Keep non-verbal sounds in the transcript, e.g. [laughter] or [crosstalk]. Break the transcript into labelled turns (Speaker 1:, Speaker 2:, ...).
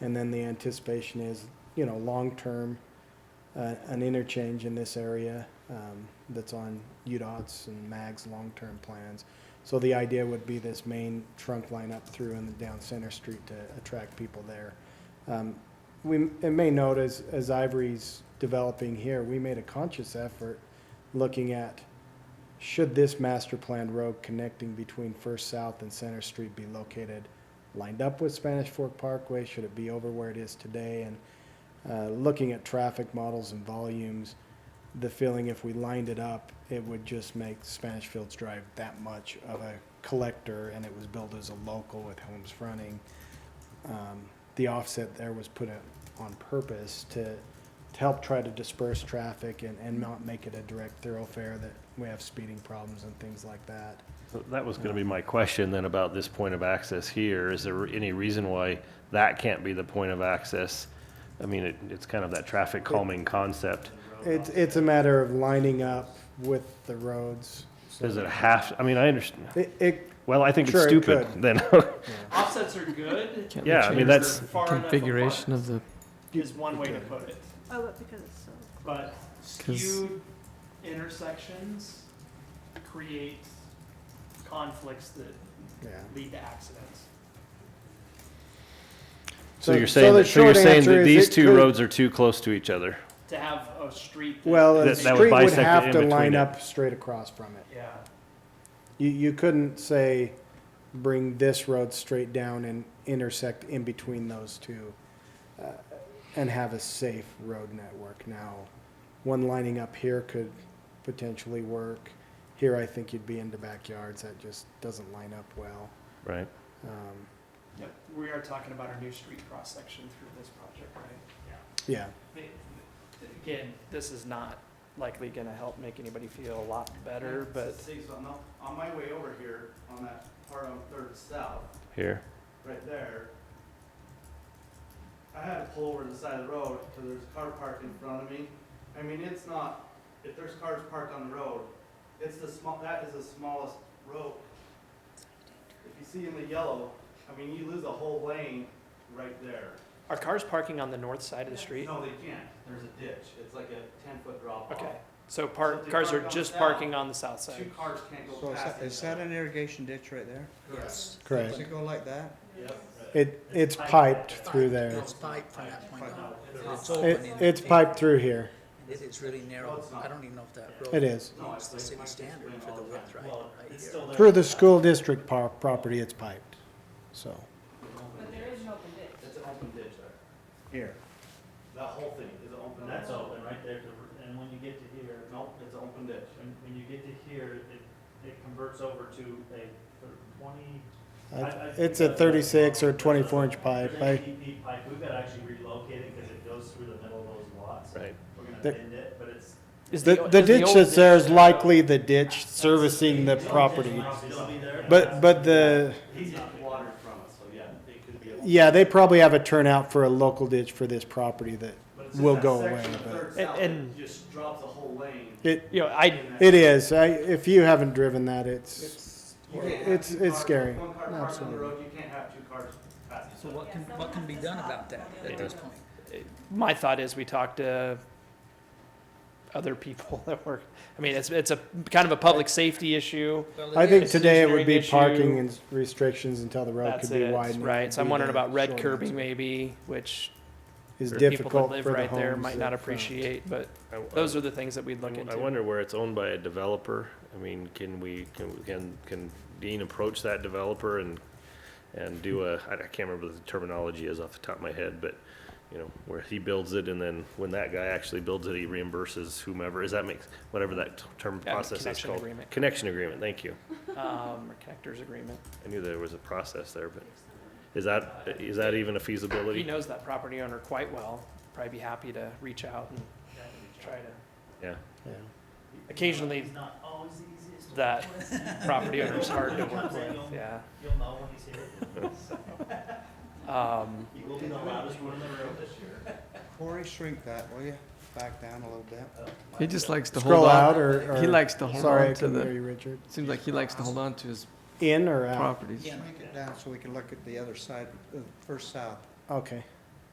Speaker 1: And then the anticipation is, you know, long-term, uh, an interchange in this area, um, that's on UDOT's and MAG's long-term plans. So the idea would be this main trunk line up through and down Center Street to attract people there. Um, we, and may note as, as Ivory's developing here, we made a conscious effort looking at, should this master plan road connecting between First South and Center Street be located lined up with Spanish Fork Parkway? Should it be over where it is today? And, uh, looking at traffic models and volumes, the feeling if we lined it up, it would just make Spanish Fields Drive that much of a collector and it was billed as a local with homes fronting um, the offset there was put in on purpose to, to help try to disperse traffic and, and not make it a direct thoroughfare that we have speeding problems and things like that.
Speaker 2: So That was gonna be my question then about this point of access here. Is there any reason why that can't be the point of access? I mean, it, it's kind of that traffic calming concept.
Speaker 1: It's, it's a matter of lining up with the roads. so-
Speaker 2: Does it have, I mean, I understand,
Speaker 1: It, it,
Speaker 2: well, I think it's
Speaker 1: Sure, it
Speaker 2: stupid
Speaker 1: could.
Speaker 2: then. [laughs]
Speaker 3: Offsets are good.
Speaker 4: Can't we
Speaker 2: Yeah, I mean,
Speaker 4: change
Speaker 2: that's-
Speaker 4: the
Speaker 3: Far enough
Speaker 4: Configuration of the,
Speaker 3: is one way to put it,
Speaker 5: Oh, but because it's so.
Speaker 3: but
Speaker 4: 'Cause-
Speaker 3: skewed intersections create conflicts that
Speaker 1: yeah.
Speaker 3: lead to accidents.
Speaker 2: So you're
Speaker 1: the
Speaker 2: saying, that- so you're
Speaker 1: short
Speaker 2: saying
Speaker 1: answer
Speaker 2: that
Speaker 1: is
Speaker 2: these
Speaker 1: it
Speaker 2: two
Speaker 1: could-
Speaker 2: roads are too close to each other?
Speaker 3: To have a street. that-
Speaker 1: Well, a
Speaker 2: That- that would
Speaker 1: street would
Speaker 2: bisect it
Speaker 1: have
Speaker 2: in
Speaker 1: to
Speaker 2: between
Speaker 1: line
Speaker 2: it.
Speaker 1: up straight across from it.
Speaker 3: Yeah,
Speaker 1: You, you couldn't say, bring this road straight down and intersect in between those two uh, and have a safe road network. Now, one lining up here could potentially work. Here, I think you'd be into backyards. That just doesn't line up well.
Speaker 2: Right.
Speaker 1: Um,
Speaker 3: Yep. we are talking about our new street cross section through this project, right?
Speaker 1: Yeah,
Speaker 3: Again, this is not likely gonna help make anybody feel a lot better, but
Speaker 6: See, so I'm not- on my way over here, on that part on Third South,
Speaker 2: Here,
Speaker 6: right there, I had to pull over to the side of the road because there's a car parked in front of me. I mean, it's not, if there's cars parked on the road, it's the small, that is the smallest road. If you see in the yellow, I mean, you lose a whole lane right there.
Speaker 3: are cars parking on the north side of the street?
Speaker 6: No, they can't. There's a ditch. It's like a ten-foot drop off.
Speaker 3: Okay, so
Speaker 6: So
Speaker 3: park,
Speaker 6: they
Speaker 3: cars
Speaker 6: park
Speaker 3: are
Speaker 6: on
Speaker 3: just
Speaker 6: that.
Speaker 3: parking on the south
Speaker 6: Two
Speaker 3: side.
Speaker 6: cars can't go
Speaker 7: So is
Speaker 6: past.
Speaker 7: that, is that an irrigation ditch right there?
Speaker 6: Yes.
Speaker 1: correct.
Speaker 7: Does it go like that?
Speaker 1: It, it's piped through there.
Speaker 7: It's
Speaker 8: piped from that point on. It's
Speaker 1: It, it's piped through here.
Speaker 8: It is really narrow. I don't even know if that road.
Speaker 1: It is.
Speaker 8: Meets the city standard for the width right right
Speaker 6: It's
Speaker 8: here.
Speaker 6: still there.
Speaker 1: Through the school district par- property, it's piped, so.
Speaker 5: But there is an open ditch.
Speaker 6: It's an open ditch there.
Speaker 1: Here.
Speaker 6: That whole thing is an open.
Speaker 9: That's open right there, to- and when you get to here,
Speaker 6: Nope, it's an open ditch.
Speaker 9: when, when you get to here, it, it converts over to a thir- twenty. I- I think
Speaker 1: It's a
Speaker 9: that's-
Speaker 1: thirty-six or twenty-four inch pipe.
Speaker 9: There's
Speaker 1: I,
Speaker 9: a DP pipe, we've got to actually relocate it because it goes through the middle of those lots.
Speaker 2: right.
Speaker 9: We're gonna
Speaker 1: The-
Speaker 9: bend it, but it's.
Speaker 3: Is
Speaker 1: The, the
Speaker 3: is
Speaker 1: ditch
Speaker 3: old
Speaker 1: that's there is
Speaker 9: ditch-
Speaker 1: likely the ditch servicing the
Speaker 9: It'll
Speaker 1: property.
Speaker 9: Still be there.
Speaker 1: But, but the,
Speaker 6: He's not watered from it, so yeah, it could be. a-
Speaker 1: yeah, they probably have a turnout for a local ditch for this property that
Speaker 6: But it's just
Speaker 1: will
Speaker 6: that
Speaker 1: go away.
Speaker 6: section of Third
Speaker 1: But
Speaker 3: And-
Speaker 6: South that
Speaker 3: and-
Speaker 6: Just drops a whole lane.
Speaker 1: it,
Speaker 3: You know, I,
Speaker 6: in that.
Speaker 1: it is. I, if you haven't driven that, it's,
Speaker 7: It's.
Speaker 6: You can't have
Speaker 1: it's-
Speaker 6: two
Speaker 1: it's
Speaker 6: cars-
Speaker 1: scary.
Speaker 6: One car parked on
Speaker 1: Absolutely.
Speaker 6: the road, you can't have two cars passing.
Speaker 8: So what can, what can be done about that at this point?
Speaker 3: my thought is we talk to other people [laughs] that work, I mean, it's, it's a kind of a public safety issue.
Speaker 8: Well,
Speaker 1: I
Speaker 8: it
Speaker 1: think
Speaker 8: is.
Speaker 1: today it would be
Speaker 3: engineering issue.
Speaker 1: parking and restrictions until the road
Speaker 3: That's
Speaker 1: could be
Speaker 3: it,
Speaker 1: widened.
Speaker 3: right? So I'm
Speaker 1: Would be
Speaker 3: wondering
Speaker 1: the
Speaker 3: about red
Speaker 1: short
Speaker 3: curbing
Speaker 1: answer.
Speaker 3: maybe, which
Speaker 1: Is
Speaker 3: people that
Speaker 1: difficult
Speaker 3: live
Speaker 1: for the
Speaker 3: right there
Speaker 1: homes
Speaker 3: might not
Speaker 1: up front.
Speaker 3: appreciate, but
Speaker 2: I- I-
Speaker 3: those are the things that we'd
Speaker 2: I
Speaker 3: look
Speaker 2: w-
Speaker 3: into.
Speaker 2: I wonder where it's owned by a developer. I mean, can we, can, we- can, can Dean approach that developer and, and do a, I I can't remember what the terminology is off the top of my head, but, you know, where he builds it and then when that guy actually builds it, he reimburses whomever, is that makes, whatever that t- term
Speaker 3: Yeah,
Speaker 2: process is
Speaker 3: connection
Speaker 2: called?
Speaker 1: [laughs]
Speaker 3: agreement.
Speaker 2: Connection agreement, thank you.
Speaker 3: Um, or connectors agreement.
Speaker 2: I knew there was a process there, but is that, is that even a
Speaker 3: He
Speaker 2: feasibility?
Speaker 3: knows that property owner quite well, probably be happy to reach out and try to.
Speaker 2: Yeah.
Speaker 1: Yeah.
Speaker 3: Occasionally,
Speaker 9: He's not always the easiest.
Speaker 3: that property owner's hard to work with, yeah.
Speaker 9: You'll know when he's here.
Speaker 3: Um,
Speaker 9: He will be the loudest one in the room.
Speaker 7: Corey, shrink that, will you? Back down a little bit.
Speaker 4: He just likes to hold
Speaker 1: Scroll out
Speaker 4: on.
Speaker 1: or, or.
Speaker 4: He likes to hold
Speaker 1: Sorry, I
Speaker 4: on to
Speaker 1: couldn't hear
Speaker 4: the,
Speaker 1: you, Richard.
Speaker 4: seems like he likes to hold on to his
Speaker 1: In or out?
Speaker 4: properties.
Speaker 7: Shrink it down so we can look at the other side, uh, first south.
Speaker 1: Okay.